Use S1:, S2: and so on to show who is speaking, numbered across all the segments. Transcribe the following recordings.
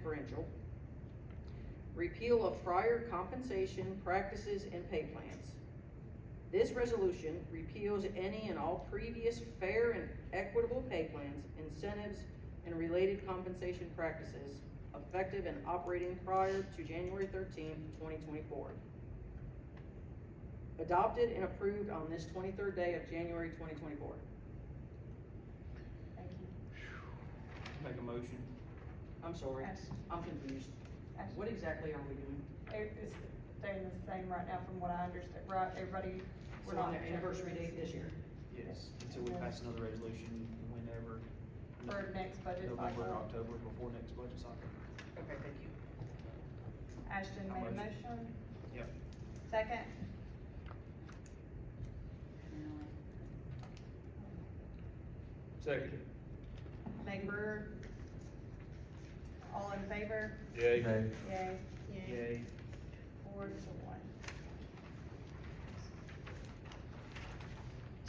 S1: differential, repeal of prior compensation practices and pay plans. This resolution repeals any and all previous fair and equitable pay plans, incentives, and related compensation practices effective and operating prior to January thirteenth, twenty twenty-four. Adopted and approved on this twenty-third day of January twenty twenty-four.
S2: Thank you.
S3: Make a motion.
S1: I'm sorry,
S2: Ash-
S1: I'm confused.
S2: Ash-
S1: What exactly are we doing?
S2: it- It's staying the same right now from what I understand, right, everybody,
S1: We're
S2: we're
S1: on
S2: not.
S1: their anniversary date this year.
S3: Yes, until we pass another resolution whenever.
S2: For next budget
S3: November,
S2: cycle.
S3: October, before next budget cycle.
S1: Okay, thank you.
S2: Ashton
S3: I'll
S2: made a
S3: motion.
S2: motion,
S3: Yep.
S2: second,
S3: Second.
S2: Meg Brewer. All in favor?
S4: Yay.
S2: Yay.
S3: Yay.
S2: Four to one.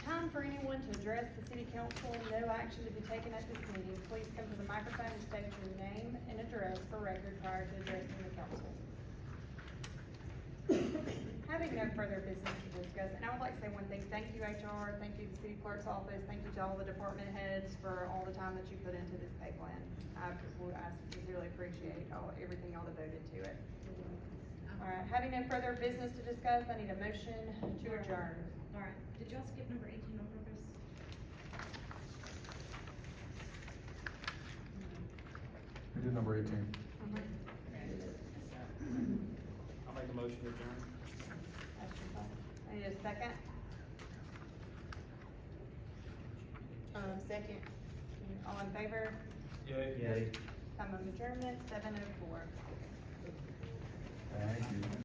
S2: Time for anyone to address the city council, no action to be taken at this meeting, please come to the microphone and state your name and address for record prior to addressing the council. Having no further business to discuss, and I would like to say one thing, thank you HR, thank you the city clerk's office, thank you to all the department heads for all the time that you put into this pay plan. I, I sincerely appreciate all, everything y'all devoted to it. All right, having no further business to discuss, I need a motion to adjourn.
S5: All right, did y'all skip number eighteen on purpose?
S4: We did number eighteen.
S3: I'll make a motion to adjourn.
S2: I need a second. Um, second. All in favor?
S3: Yay. Yay.
S2: Time of adjournment, seven oh four.